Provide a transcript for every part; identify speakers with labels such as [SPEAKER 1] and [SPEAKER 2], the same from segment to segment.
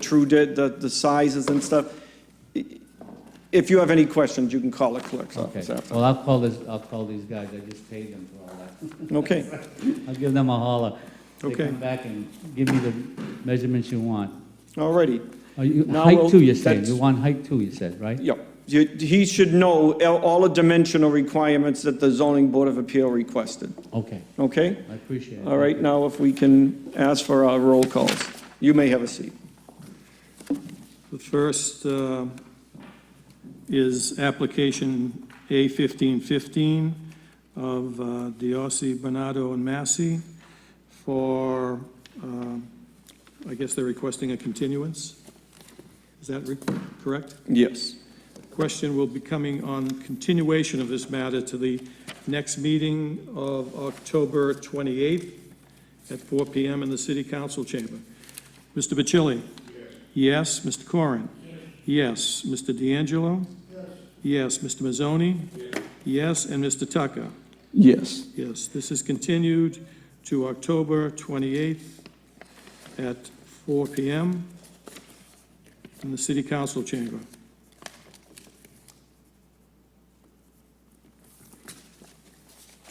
[SPEAKER 1] true, the, the- the sizes and stuff. If you have any questions, you can call the clerk's
[SPEAKER 2] Okay,
[SPEAKER 1] office after.
[SPEAKER 2] well, I'll call this, I'll call these guys, I just paid them for all that.
[SPEAKER 1] Okay,
[SPEAKER 2] I'll give them a holler.
[SPEAKER 1] Okay.
[SPEAKER 2] They come back and give me the measurements you want.
[SPEAKER 1] all righty.
[SPEAKER 2] Oh, you-
[SPEAKER 1] Now
[SPEAKER 2] Height
[SPEAKER 1] we'll-
[SPEAKER 2] two, you said,
[SPEAKER 1] that's-
[SPEAKER 2] you want height two, you said, right?
[SPEAKER 1] Yep. You- He should know all all the dimensional requirements that the zoning board of appeal requested,
[SPEAKER 2] Okay,
[SPEAKER 1] okay?
[SPEAKER 2] I appreciate it.
[SPEAKER 1] All right, now if we can ask for our roll calls. You may have a seat.
[SPEAKER 3] The first uh, is application A fifteen fifteen of uh, Diossi, Bernardo, and Massey for, um, I guess they're requesting a continuance. Is that re- correct?
[SPEAKER 1] Yes.
[SPEAKER 3] Question will be coming on continuation of this matter to the next meeting of October twenty-eighth at four PM in the city council chamber. Mr. Bacilli? Yes, Mr. Corrin? Yes. Mr. D'Angelo? Yes. Mr. Mazzoni? Yes, and Mr. Tucker?
[SPEAKER 1] Yes.
[SPEAKER 3] Yes, this is continued to October 28th at 4 PM in the city council chamber.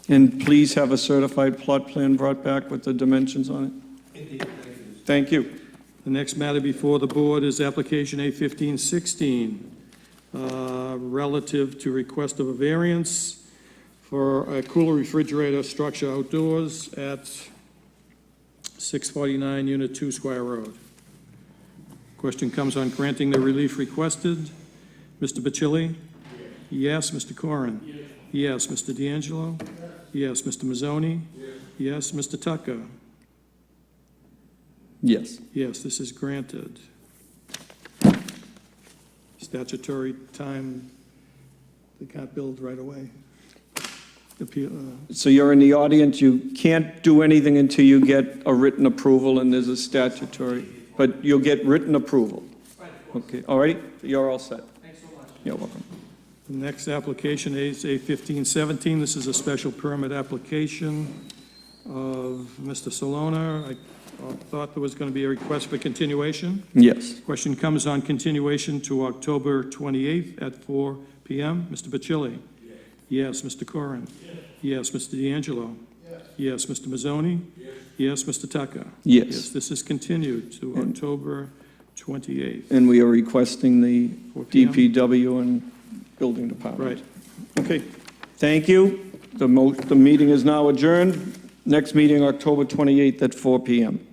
[SPEAKER 1] And please have a certified plot plan brought back with the dimensions on it. Thank you.
[SPEAKER 3] The next matter before the board is application A fifteen sixteen, uh, relative to request of a variance for a cooler refrigerator structure outdoors at six forty-nine Unit Two Square Road. Question comes on granting the relief requested. Mr. Bacilli? Yes, Mr. Corrin? Yes. Mr. D'Angelo? Yes. Mr. Mazzoni? Yes, Mr. Tucker?
[SPEAKER 1] Yes.
[SPEAKER 3] Yes, this is granted. Statutory time, they can't build right away. Appeal, uh,
[SPEAKER 1] So you're in the audience, you can't do anything until you get a written approval, and there's a statutory, but you'll get written approval. Okay, all right, you're all set. Thanks so much. You're welcome.
[SPEAKER 3] The next application is A fifteen seventeen. This is a special permit application of Mr. Solana. I uh, thought there was going to be a request for continuation.
[SPEAKER 1] Yes.
[SPEAKER 3] Question comes on continuation to October 28th at 4 PM. Mr. Bacilli? Yes. Mr. Corrin? Yes. Mr. D'Angelo? Yes. Mr. Mazzoni? Yes. Mr. Tucker? Yes,
[SPEAKER 1] Yes.
[SPEAKER 3] this is continued to
[SPEAKER 1] And-
[SPEAKER 3] October 28th,
[SPEAKER 1] And we are requesting the
[SPEAKER 3] 4 PM.
[SPEAKER 1] DPW and Building Department.
[SPEAKER 3] Right.
[SPEAKER 1] Okay, thank you. The mo, the meeting is now adjourned. Next meeting, October 28th at 4 PM.